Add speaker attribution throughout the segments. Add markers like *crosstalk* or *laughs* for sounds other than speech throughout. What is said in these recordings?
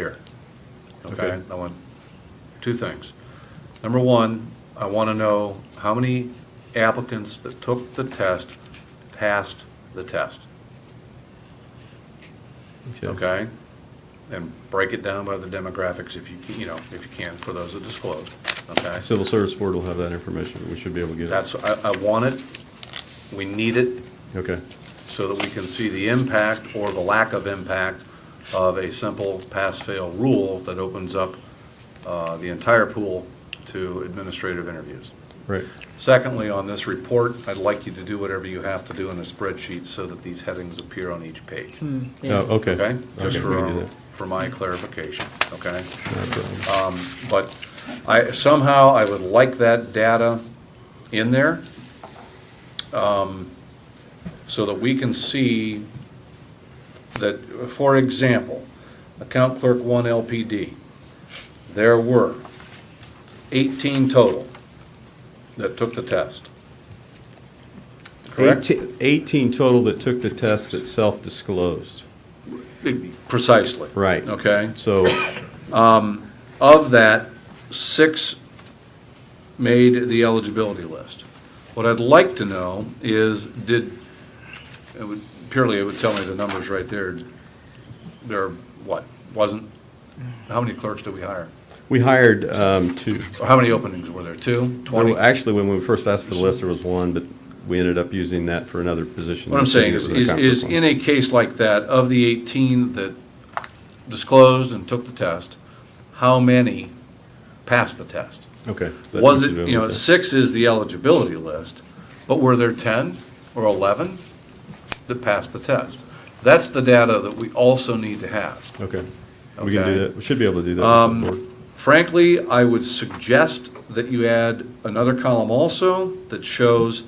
Speaker 1: here. Okay,
Speaker 2: Okay.
Speaker 1: I want two things. Number one, I want to know how many applicants that took the test passed the test, okay? And break it down by the demographics if you, can- you know, if you can, for those that disclose, okay?
Speaker 2: Civil Service Board will have that information. We should be able to get it.
Speaker 1: That's, I, I want it, we need it,
Speaker 2: Okay,
Speaker 1: so that we can see the impact or the lack of impact of a simple pass-fail rule that opens up uh, the entire pool to administrative interviews.
Speaker 2: right.
Speaker 1: Secondly, on this report, I'd like you to do whatever you have to do in the spreadsheet so that these headings appear on each page.
Speaker 2: Oh, okay.
Speaker 1: Okay? Just
Speaker 2: Okay, we can do
Speaker 1: for, uh,
Speaker 2: that.
Speaker 1: for my clarification, okay?
Speaker 2: No problem.
Speaker 1: But I, somehow I would like that data in there um, so that we can see that, for example, account clerk one LPD, there were 18 total that took the test. Correct?
Speaker 2: Eighteen- Eighteen total that took the test that self-disclosed.
Speaker 1: Precisely.
Speaker 2: Right.
Speaker 1: Okay?
Speaker 2: So,
Speaker 1: Of that, six made the eligibility list. What I'd like to know is, did, it would- purely, it would tell me the numbers right there. There, what, wasn't, how many clerks did we hire?
Speaker 2: we hired um, two.
Speaker 1: Or how many openings were there? Two?
Speaker 2: There
Speaker 1: Twenty?
Speaker 2: were- Actually, when we first asked for the list, there was one, but we ended up using that for another position.
Speaker 1: What I'm saying is, is is in a case like that, of the 18 that disclosed and took the test, how many passed the test?
Speaker 2: Okay. that
Speaker 1: Was
Speaker 2: needs
Speaker 1: it,
Speaker 2: to be
Speaker 1: you know,
Speaker 2: looked at.
Speaker 1: six is the eligibility list, but were there 10 or 11 that passed the test? That's the data that we also need to have.
Speaker 2: Okay. We
Speaker 1: Okay.
Speaker 2: can
Speaker 1: Um,
Speaker 2: do that. We should be able to do that. with the board.
Speaker 1: Frankly, I would suggest that you add another column also that shows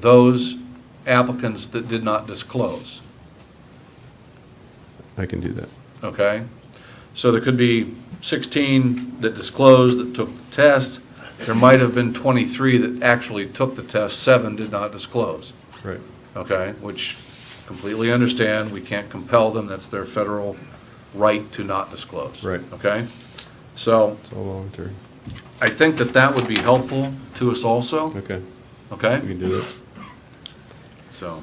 Speaker 1: those applicants that did not disclose,
Speaker 2: I can do that.
Speaker 1: okay? So there could be 16 that disclosed, that took the test. There might have been 23 that actually took the test, seven did not disclose.
Speaker 2: Right.
Speaker 1: okay, which completely understand, we can't compel them, that's their federal right to not disclose.
Speaker 2: Right.
Speaker 1: Okay? So
Speaker 2: It's all voluntary.
Speaker 1: I think that that would be helpful to us also,
Speaker 2: Okay. We
Speaker 1: okay?
Speaker 2: can do that.
Speaker 1: So,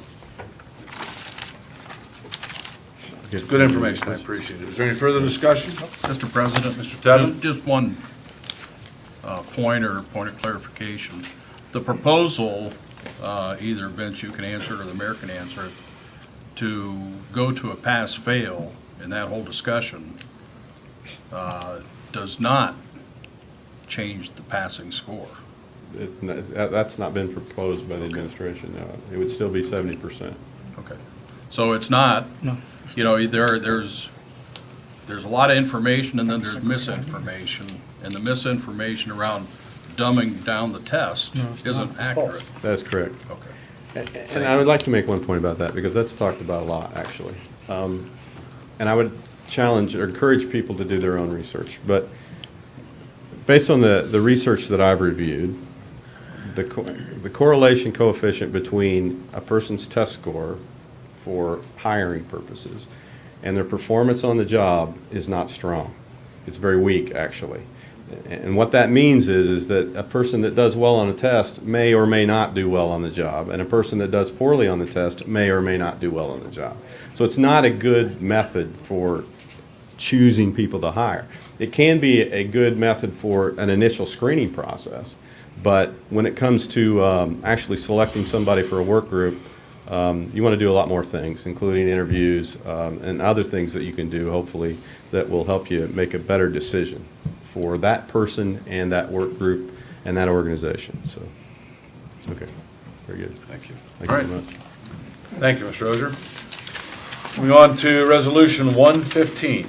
Speaker 1: it's good information, I appreciate it. Is there any further discussion?
Speaker 3: Mr. President?
Speaker 1: Mr. Tevin?
Speaker 3: Just- Just one uh, point or point of clarification. The proposal, uh, either Vince, you can answer it or the mayor can answer it, to go to a pass-fail in that whole discussion uh, does not change the passing score.
Speaker 2: It's not- it's- that- That's not been proposed by the administration, no. It would still be 70%.
Speaker 3: Okay. So it's not, you know, there, there's, there's a lot of information and then there's misinformation. And the misinformation around dumbing down the test isn't accurate.
Speaker 2: That's correct.
Speaker 3: Okay.
Speaker 2: And I would like to make one point about that, because that's talked about a lot, actually. Um, And I would challenge or encourage people to do their own research. But based on the, the research that I've reviewed, the, co- the correlation coefficient between a person's test score for hiring purposes and their performance on the job is not strong. It's very weak, actually. And what that means is, is that a person that does well on a test may or may not do well on the job, and a person that does poorly on the test may or may not do well on the job. So it's not a good method for choosing people to hire. It can be a good method for an initial screening process, but when it comes to um, actually selecting somebody for a work group, um, you want to do a lot more things, including interviews um, and other things that you can do, hopefully, that will help you make a better decision for that person and that work group and that organization. So, okay, very good.
Speaker 1: Thank you.
Speaker 2: Thank
Speaker 1: All
Speaker 2: you
Speaker 1: right.
Speaker 2: very
Speaker 1: Thank
Speaker 2: much.
Speaker 1: you, Mr. Ozier. Moving on to Resolution 115.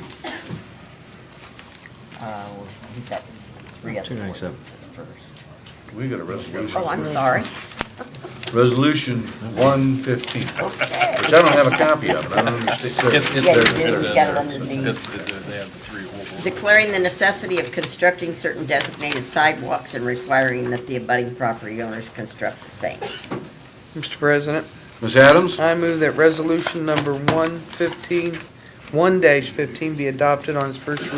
Speaker 4: Uh, We've got three other
Speaker 5: Two ninety seven.
Speaker 4: ordinances first.
Speaker 1: We got a resolution.
Speaker 4: Oh, I'm sorry. *laughs*
Speaker 1: Resolution 115, which I don't have a copy of, it. I don't understand.
Speaker 4: Yeah, you did, you got it
Speaker 3: If-
Speaker 4: underneath.
Speaker 3: if They have the three old ones.
Speaker 4: Declaring the necessity of constructing certain designated sidewalks and requiring that the abutting property owners construct the same.
Speaker 6: Mr. President,
Speaker 1: Ms. Adams?
Speaker 6: I move that resolution number 115 one fifteen be adopted on its first